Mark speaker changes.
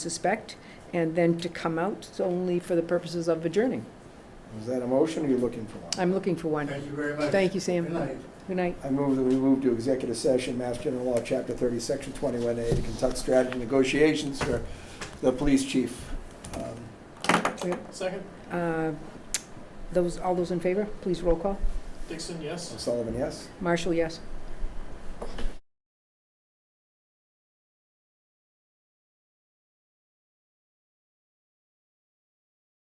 Speaker 1: suspect, and then to come out only for the purposes of adjourning.
Speaker 2: Is that a motion, or are you looking for one?
Speaker 1: I'm looking for one.
Speaker 3: Thank you very much.
Speaker 1: Thank you, Sam.
Speaker 3: Good night.
Speaker 1: Good night.
Speaker 2: I move that we move to executive session, Mass General Law, Chapter 30, Section 21A, to conduct strategy negotiations for the police chief. Um,
Speaker 4: Second,
Speaker 1: Uh, Those, all those in favor, please roll call.
Speaker 4: Dixon, yes.
Speaker 2: Sullivan, yes?
Speaker 1: Marshall, yes.